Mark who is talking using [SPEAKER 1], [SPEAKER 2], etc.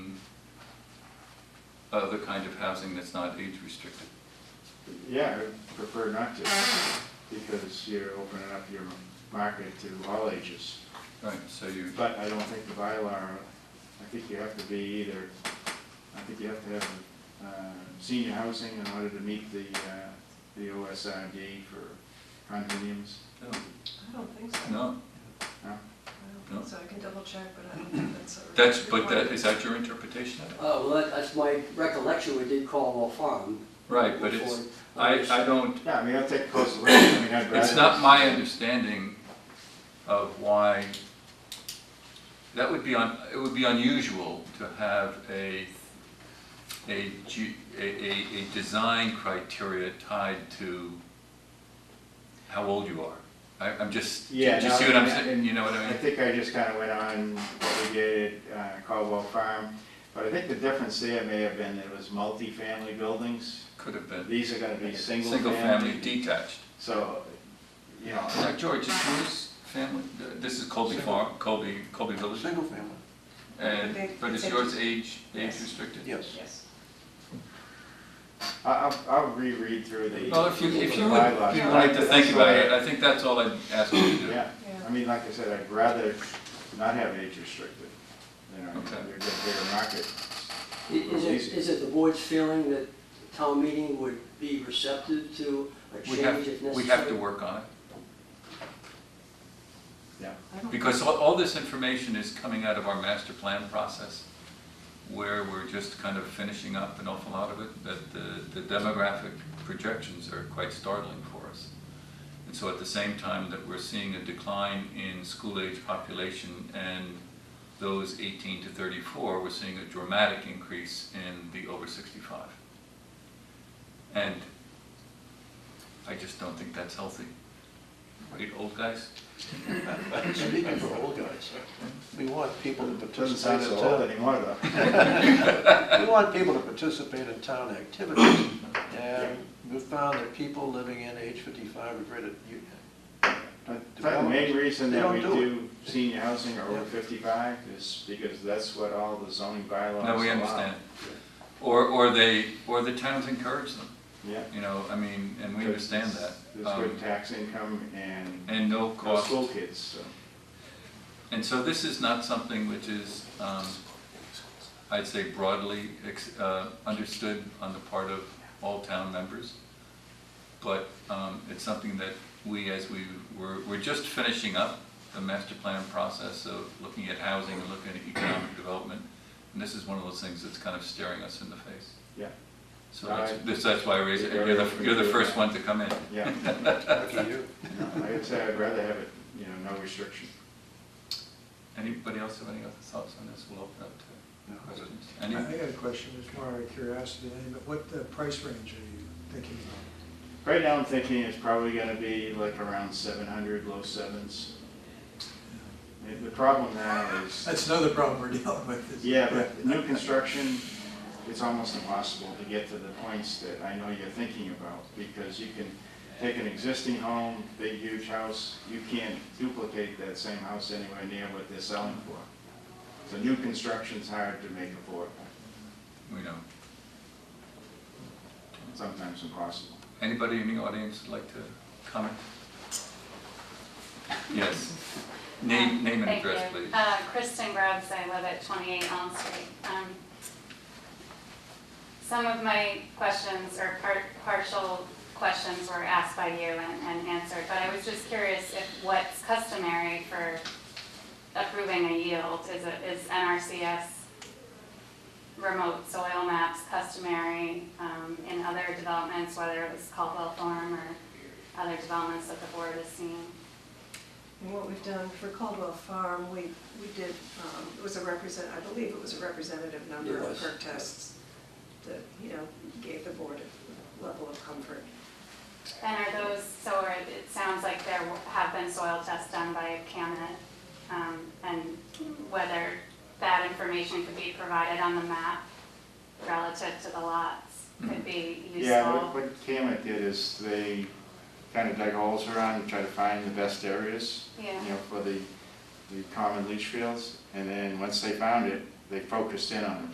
[SPEAKER 1] other kind of housing that's not age restricted.
[SPEAKER 2] Yeah, I'd prefer not to, because you're opening up your market to all ages.
[SPEAKER 1] Right, so you,
[SPEAKER 2] But I don't think the bylaw, I think you have to be either, I think you have to have uh, senior housing in order to meet the, uh, the OSRD for condominiums.
[SPEAKER 1] no,
[SPEAKER 3] I don't think so.
[SPEAKER 1] no,
[SPEAKER 2] No?
[SPEAKER 3] I don't think so. I can double check, but I don't think that's a.
[SPEAKER 1] that's, but that, is that your interpretation of it?
[SPEAKER 4] Uh, well, that- that's my recollection, we did Caldwell Farm.
[SPEAKER 1] Right, but it's, I, I don't,
[SPEAKER 2] Yeah, I mean, I'll take a closer look, I mean, I'd rather.
[SPEAKER 1] It's not my understanding of why, that would be on, it would be unusual to have a, a, ju- a, a, a design criteria tied to how old you are. I, I'm just, do
[SPEAKER 2] Yeah,
[SPEAKER 1] you
[SPEAKER 2] no,
[SPEAKER 1] see what I'm
[SPEAKER 2] and-
[SPEAKER 1] saying, you know what I
[SPEAKER 2] I
[SPEAKER 1] mean?
[SPEAKER 2] think I just kind of went on what we did at uh, Caldwell Farm, but I think the difference there may have been that it was multifamily buildings.
[SPEAKER 1] Could have been,
[SPEAKER 2] These are gonna be single
[SPEAKER 1] single-family
[SPEAKER 2] family.
[SPEAKER 1] detached.
[SPEAKER 2] So, you know,
[SPEAKER 1] Now, George, is yours family, this is Colby Farm, Colby, Colby Village,
[SPEAKER 5] Single family,
[SPEAKER 1] and, but is yours age, age
[SPEAKER 3] Yes.
[SPEAKER 1] restricted?
[SPEAKER 5] yes.
[SPEAKER 3] Yes.
[SPEAKER 2] I- I'll, I'll reread through the.
[SPEAKER 1] Well, if you, if you
[SPEAKER 2] the
[SPEAKER 1] would,
[SPEAKER 2] bylaws.
[SPEAKER 1] you'd like to think about it,
[SPEAKER 2] That's
[SPEAKER 1] I think that's all I'd ask you to
[SPEAKER 2] why-
[SPEAKER 1] do.
[SPEAKER 2] Yeah,
[SPEAKER 3] Yeah.
[SPEAKER 2] I mean, like I said, I'd rather not have age restricted, you know,
[SPEAKER 1] Okay.
[SPEAKER 2] you're getting bigger market.
[SPEAKER 4] I- Is it, is it the board's feeling that town meeting would be receptive to a
[SPEAKER 1] We
[SPEAKER 4] change if
[SPEAKER 1] have, we have to
[SPEAKER 4] necessary?
[SPEAKER 1] work on it,
[SPEAKER 2] Yeah,
[SPEAKER 3] I don't-
[SPEAKER 1] because all, all this information is coming out of our master plan process, where we're just kind of finishing up an awful lot of it, that the, the demographic projections are quite startling for us. And so at the same time that we're seeing a decline in school-age population and those eighteen to thirty-four, we're seeing a dramatic increase in the over sixty-five. And I just don't think that's healthy. Right, old guys?
[SPEAKER 5] Speaking for old guys, we want people to
[SPEAKER 2] doesn't sound
[SPEAKER 5] participate
[SPEAKER 2] so
[SPEAKER 5] in
[SPEAKER 2] old
[SPEAKER 5] town.
[SPEAKER 2] anymore though.
[SPEAKER 5] We want people to participate in town activities. And we found that people living in age fifty-five are great at, you-
[SPEAKER 2] But The main reason
[SPEAKER 5] They
[SPEAKER 2] that
[SPEAKER 5] don't
[SPEAKER 2] we
[SPEAKER 5] do
[SPEAKER 2] do senior housing or over
[SPEAKER 5] Yeah.
[SPEAKER 2] fifty-five is because that's what all the zoning bylaws allow.
[SPEAKER 1] No, we understand. Or, or they, or the towns encourage them,
[SPEAKER 2] Yeah.
[SPEAKER 1] you know, I mean, and we
[SPEAKER 2] Because
[SPEAKER 1] understand
[SPEAKER 2] it's-
[SPEAKER 1] that.
[SPEAKER 2] There's
[SPEAKER 1] Um,
[SPEAKER 2] good tax income and
[SPEAKER 1] And no
[SPEAKER 2] no
[SPEAKER 1] cost.
[SPEAKER 2] school kids, so.
[SPEAKER 1] And so this is not something which is, um, I'd say broadly ex- uh, understood on the part of all town members, but um, it's something that we, as we, we're, we're just finishing up the master plan process of looking at housing and looking at economic development, and this is one of those things that's kind of staring us in the face.
[SPEAKER 2] Yeah.
[SPEAKER 1] So that's, this- that's why I raised it, you're the, you're the first one to come in.
[SPEAKER 2] Yeah,
[SPEAKER 5] lucky you.
[SPEAKER 2] no, like I said, I'd rather have it, you know, no restriction.
[SPEAKER 1] Anybody else have any other thoughts on this? We'll open up to questions. Any-
[SPEAKER 6] I I got a question, it's more out of curiosity, than anything, but what uh, price range are you thinking about?
[SPEAKER 2] Right now, I'm thinking it's probably gonna be like around seven hundred, low sevens. The- The problem now is,
[SPEAKER 6] That's another problem we're dealing with. is-
[SPEAKER 2] yeah, but new construction, it's almost impossible to get to the points that I know you're thinking about, because you can take an existing home, big huge house, you can't duplicate that same house anywhere near what they're selling for. So new construction's hard to make affordable,
[SPEAKER 1] We know.
[SPEAKER 2] sometimes impossible.
[SPEAKER 1] Anybody in the audience would like to comment? Yes. Name, name and
[SPEAKER 7] Um, Thank
[SPEAKER 1] address,
[SPEAKER 7] you.
[SPEAKER 1] please.
[SPEAKER 7] Uh, Kristen Grubbs, I live at 28 Elm Street. Um, Some of my questions or par- partial questions were asked by you and and answered, but I was just curious if what's customary for approving a yield, is it- is NRCS remote soil maps customary um, in other developments, whether it was Caldwell Farm or other developments that the board has seen?
[SPEAKER 3] And what we've done for Caldwell Farm, we, we did, um, it was a represent, I believe it was a representative number
[SPEAKER 5] It
[SPEAKER 3] of
[SPEAKER 5] was.
[SPEAKER 3] perk tests that, you know, gave the board a level of comfort.
[SPEAKER 7] And are those, so are- it sounds like there have been soil tests done by CAMet, um, and whether that information could be provided on the map relative to the lots could be
[SPEAKER 2] Yeah, what-
[SPEAKER 7] useful.
[SPEAKER 2] what Camet did is they kind of dug holes around and tried to find the best areas, you
[SPEAKER 7] Yeah,
[SPEAKER 2] know, for the, the common leach fields. And then, once they found it, they focused in on them.